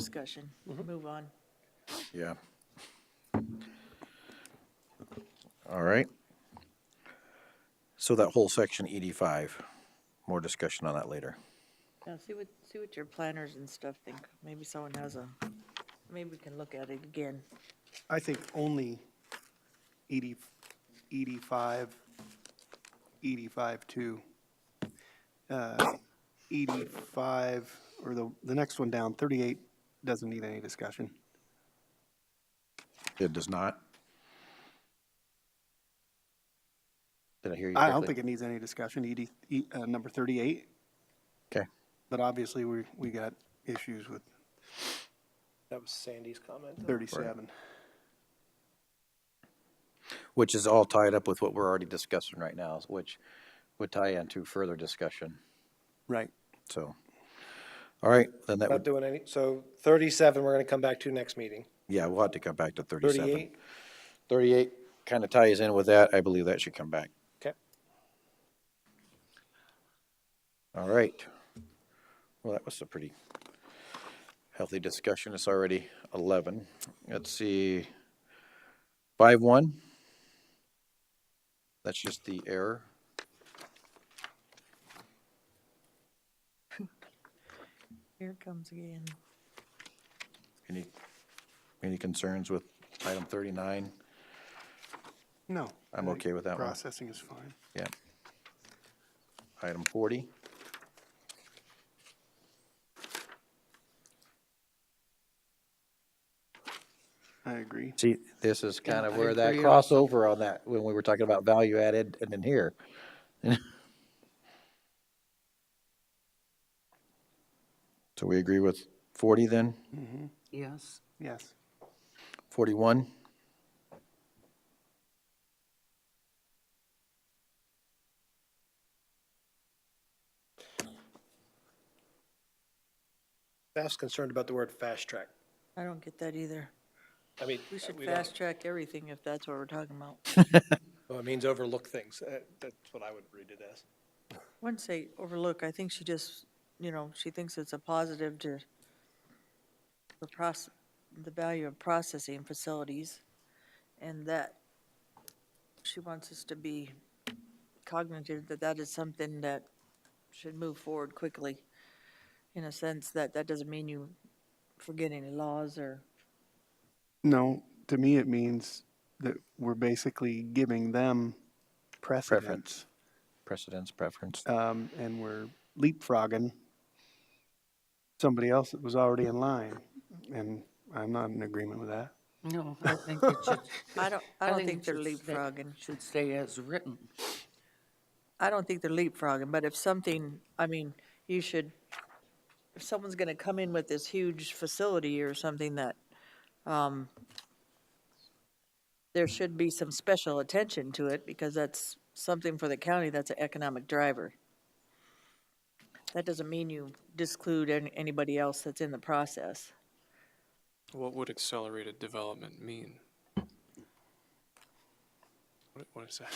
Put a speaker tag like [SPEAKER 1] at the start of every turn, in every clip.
[SPEAKER 1] discussion.
[SPEAKER 2] Mm-hmm.
[SPEAKER 1] Move on.
[SPEAKER 3] Yeah. All right. So that whole section ED5, more discussion on that later.
[SPEAKER 1] Now, see what, see what your planners and stuff think. Maybe someone has a, maybe we can look at it again.
[SPEAKER 4] I think only ED, ED5, ED5-2. ED5, Uh, or the, the next one down, 38, doesn't need any discussion.
[SPEAKER 3] It does not. Did I hear you
[SPEAKER 4] I don't
[SPEAKER 3] correctly?
[SPEAKER 4] think it needs any discussion, ED, E- uh, number 38,
[SPEAKER 3] Okay,
[SPEAKER 4] but obviously we, we got issues with
[SPEAKER 2] That was Sandy's comment. though.
[SPEAKER 4] 37.
[SPEAKER 3] which is all tied up with what we're already discussing right now, which would tie into further discussion,
[SPEAKER 4] Right.
[SPEAKER 3] so. All right, then that
[SPEAKER 2] Not
[SPEAKER 3] would,
[SPEAKER 2] doing any, so 37, we're going to come back to next meeting.
[SPEAKER 3] yeah, we'll have to come back to 37.
[SPEAKER 2] 38,
[SPEAKER 3] 38 kind of ties in with that. I believe that should come back.
[SPEAKER 2] okay.
[SPEAKER 3] All right. Well, that was a pretty healthy discussion. It's already eleven. Let's see. Five one. That's just the error.
[SPEAKER 1] Here it comes again.
[SPEAKER 3] Any, any concerns with item thirty-nine?
[SPEAKER 4] No.
[SPEAKER 3] I'm
[SPEAKER 4] I
[SPEAKER 3] okay with that one.
[SPEAKER 4] Processing is fine.
[SPEAKER 3] Yeah. Item forty.
[SPEAKER 4] I agree.
[SPEAKER 3] See, this is kind of
[SPEAKER 4] I
[SPEAKER 3] where that
[SPEAKER 4] agree
[SPEAKER 3] crossover on that, when we were talking about value added and in here. So we agree with forty then,
[SPEAKER 5] Yes.
[SPEAKER 4] Yes.
[SPEAKER 3] forty-one?
[SPEAKER 2] Staff's concerned about the word fast track.
[SPEAKER 1] I don't get that either.
[SPEAKER 2] I mean,
[SPEAKER 1] We should
[SPEAKER 2] we don't-
[SPEAKER 1] fast track everything if that's what we're talking about.
[SPEAKER 2] well, it means overlook things. Uh, That's what I would read it as.
[SPEAKER 1] Wouldn't say overlook. I think she just, you know, she thinks it's a positive to the process, the value of processing facilities and that she wants us to be cognizant that that is something that should move forward quickly. In a sense that that doesn't mean you forget any laws or,
[SPEAKER 4] No, to me, it means that we're basically giving them precedence.
[SPEAKER 3] Preference. Precedence, preference.
[SPEAKER 4] um, and we're leapfrogging somebody else that was already in line. And I'm not in agreement with that.
[SPEAKER 5] No, I think it should.
[SPEAKER 1] I don't, I don't
[SPEAKER 5] it
[SPEAKER 1] think they're
[SPEAKER 5] should stay-
[SPEAKER 1] leapfrogging.
[SPEAKER 5] Should stay as written.
[SPEAKER 1] I don't think they're leapfrogging, but if something, I mean, you should, if someone's gonna come in with this huge facility or something that, um, there should be some special attention to it because that's something for the county that's an economic driver. That doesn't mean you disclude an- anybody else that's in the process.
[SPEAKER 6] What would accelerated development mean? What- What is that?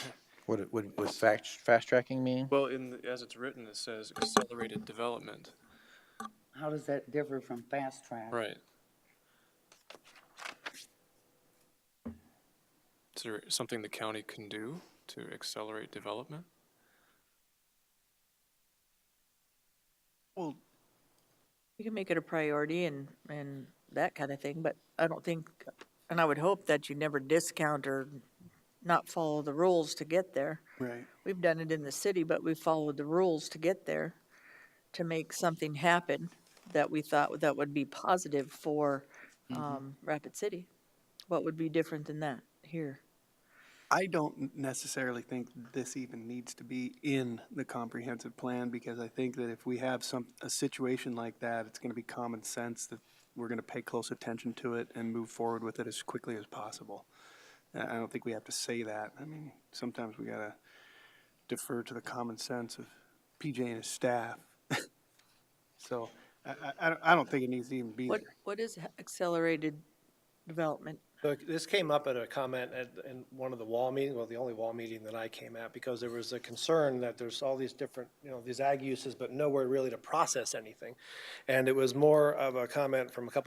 [SPEAKER 3] What, it- what, what fast, fast tracking mean?
[SPEAKER 6] Well, in, the- as it's written, it says accelerated development.
[SPEAKER 5] How does that differ from fast track?
[SPEAKER 6] Right. Is there something the county can do to accelerate development?
[SPEAKER 4] Well,
[SPEAKER 1] You can make it a priority and, and that kind of thing, but I don't think, and I would hope that you never discount or not follow the rules to get there.
[SPEAKER 4] right.
[SPEAKER 1] We've done it in the city, but we followed the rules to get there, to make something happen that we thought that would be positive for, um, Rapid City. What would be different than that here?
[SPEAKER 4] I don't necessarily think this even needs to be in the comprehensive plan because I think that if we have some, a situation like that, it's going to be common sense that we're going to pay close attention to it and move forward with it as quickly as possible. And I don't think we have to say that. I mean, sometimes we got to defer to the common sense of PJ and his staff. So I, I- I, don't- I don't think it needs to even be
[SPEAKER 1] What,
[SPEAKER 4] there.
[SPEAKER 1] what is accelerated development?
[SPEAKER 2] So this came up at a comment at, in one of the wall meetings, well, the only wall meeting that I came at, because there was a concern that there's all these different, you know, these ag uses, but nowhere really to process anything. And it was more of a comment from a couple